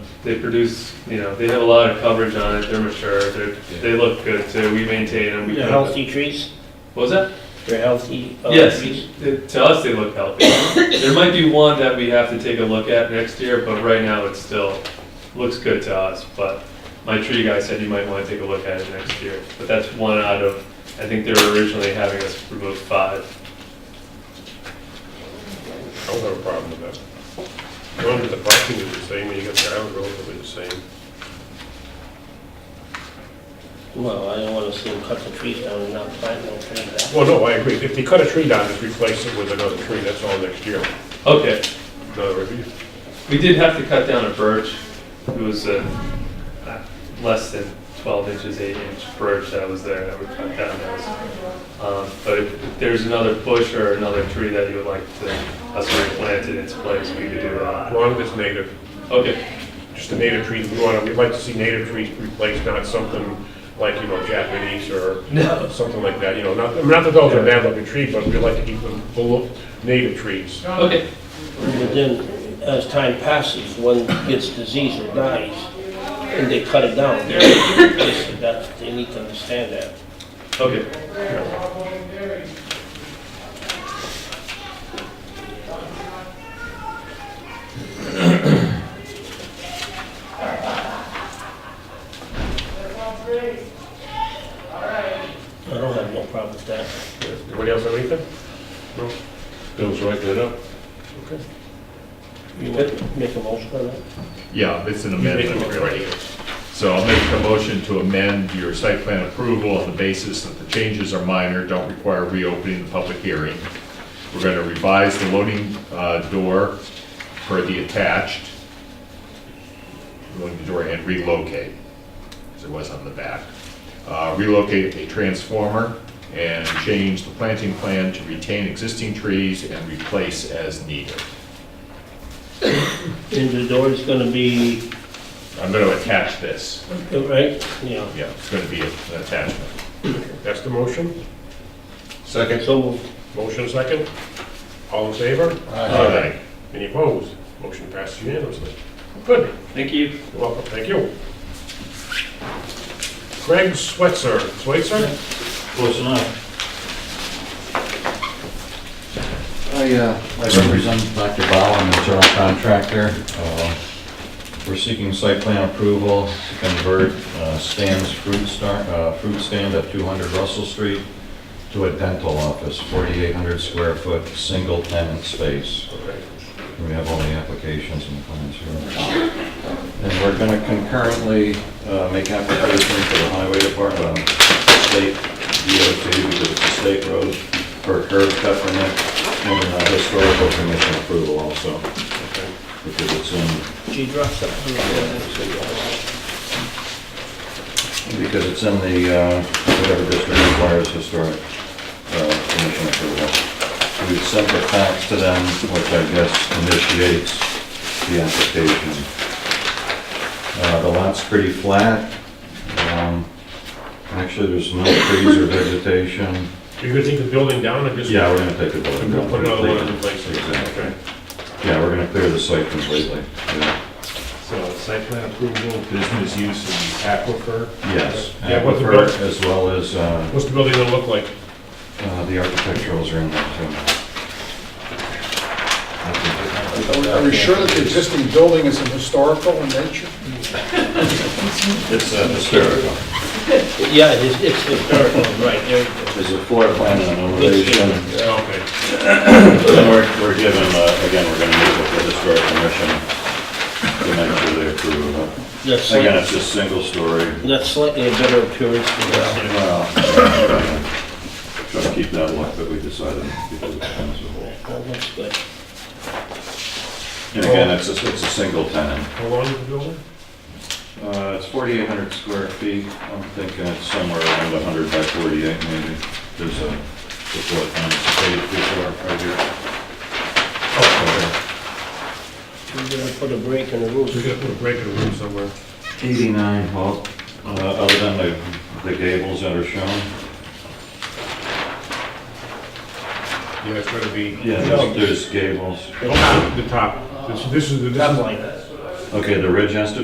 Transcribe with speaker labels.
Speaker 1: they produce, you know, they have a lot of coverage on it, they're mature, they're,
Speaker 2: Yeah.
Speaker 1: they look good too, we maintain them. We
Speaker 3: They're
Speaker 1: cut them.
Speaker 3: healthy trees,
Speaker 1: What was that?
Speaker 3: they're healthy uh,
Speaker 1: Yes,
Speaker 3: trees.
Speaker 1: it- to us, they look healthy. There might be one that we have to take a look at next year, but right now it still looks good to us. But my tree guy said you might want to take a look at it next year. But that's one out of, I think they were originally having us remove five.
Speaker 4: I don't have a problem with that. As long as the parking is the same, and you got the ground relatively the same.
Speaker 3: Well, I don't wanna see them cut the trees down and not plant no trees back.
Speaker 4: Well, no, I agree. If you cut a tree down, just replace it with another tree, that's all next year.
Speaker 1: Okay,
Speaker 4: Another review.
Speaker 1: we did have to cut down a birch. It was a less than 12 inches, 8 inch birch that was there that we cut down. That was Um, But if there's another bush or another tree that you would like to, us to replant in its place, we could do
Speaker 4: As
Speaker 1: that.
Speaker 4: long as it's native,
Speaker 1: Okay,
Speaker 4: just a native tree, we want, we'd like to see native trees replaced, not something like, you know, Japanese or
Speaker 1: No.
Speaker 4: something like that, you know, not, I mean, not that those are bad looking trees, but we'd like to keep them below native trees.
Speaker 1: okay,
Speaker 3: But then, as time passes, one gets disease or dies, and they cut it down. That's, they need to understand that.
Speaker 1: okay.
Speaker 3: I don't have no problem with that.
Speaker 4: Anybody else have anything? No?
Speaker 2: Bill's writing it up.
Speaker 4: Okay.
Speaker 3: You want make a motion on that?
Speaker 5: Yeah, it's an
Speaker 4: You make them
Speaker 5: amendment,
Speaker 4: look
Speaker 5: really.
Speaker 4: ready.
Speaker 5: So I'll make a motion to amend your site plan approval on the basis that the changes are minor, don't require reopening the public hearing. We're gonna revise the loading uh, door for the attached, loading door and relocate, as it was on the back. Uh, Relocate a transformer and change the planting plan to retain existing trees and replace as needed.
Speaker 3: And the door is gonna be,
Speaker 5: I'm gonna attach this,
Speaker 3: right, yeah,
Speaker 5: yeah, it's gonna be an attachment.
Speaker 4: That's the motion?
Speaker 2: Second?
Speaker 3: so moved.
Speaker 4: Motion second? All in favor?
Speaker 5: Aye.
Speaker 4: Any opposed? Motion passed unanimously. Good.
Speaker 1: Thank you.
Speaker 4: You're welcome, thank you. Craig Switzer, Switzer?
Speaker 6: Close enough.
Speaker 2: I, uh, I represent Dr. Bowen, a general contractor. Uh, We're seeking site plan approval to convert uh, Stan's Fruit Star, uh, Fruit Stand at 200 Russell Street to a dental office, 4,800 square foot, single tenant space. We have all the applications and plans here. And we're going to concurrently uh, make application to the highway department, um, state DOT, because it's a state road, for curb cut permit and uh, historical commission approval also, because it's in,
Speaker 3: She dropped something.
Speaker 2: because it's in the, uh, whatever district requires historic uh, commission approval. We've sent the fax to them, which I guess initiates the application. Uh, The lot's pretty flat. Um, Actually, there's no trees or vegetation.
Speaker 4: You're gonna take the building down and just?
Speaker 2: Yeah, we're gonna take the
Speaker 4: Put
Speaker 2: building down.
Speaker 4: another one in place?
Speaker 2: Exactly.
Speaker 4: Okay.
Speaker 2: Yeah, we're gonna clear the site completely. Yeah.
Speaker 1: So, site plan
Speaker 5: approval, business use in the aquifer.
Speaker 2: Yes.
Speaker 4: Yeah, what the
Speaker 2: Aquifer,
Speaker 4: buil-
Speaker 2: As well as, uh,
Speaker 4: What's the building gonna look like?
Speaker 2: uh, the architecturals are in there too.
Speaker 7: Are we sure that the existing building is historical in nature?
Speaker 2: It's uh, hysterical.
Speaker 3: Yeah, it's, it's historical, right, there you go.
Speaker 2: There's a floor plan and an elevation.
Speaker 4: Yeah, okay.
Speaker 2: And we're, we're given, uh, again, we're gonna meet with the historic commission to make sure they approve of it.
Speaker 3: That's
Speaker 2: Again,
Speaker 3: slightly,
Speaker 2: it's just single story.
Speaker 3: that's slightly a better appearance than that.
Speaker 2: Well, Try to keep that look that we decided because it becomes a whole.
Speaker 3: That looks good.
Speaker 2: And again, it's a, it's a single tenant.
Speaker 4: How long is the building?
Speaker 2: Uh, it's forty-eight hundred square feet, I'm thinking it's somewhere around hundred by forty-eight maybe. There's a, the floor plan is paid before, right here. Oh,
Speaker 3: We're gonna put a break in the roof.
Speaker 4: We're gonna put a break in the room somewhere.
Speaker 2: Eighty-nine, well, uh, other than the, the gables that are shown.
Speaker 4: Yeah, it's gonna be.
Speaker 2: Yeah, there's- there's gables.
Speaker 4: The top, This- this is the. this is-
Speaker 3: Top line.
Speaker 2: Okay, the ridge has to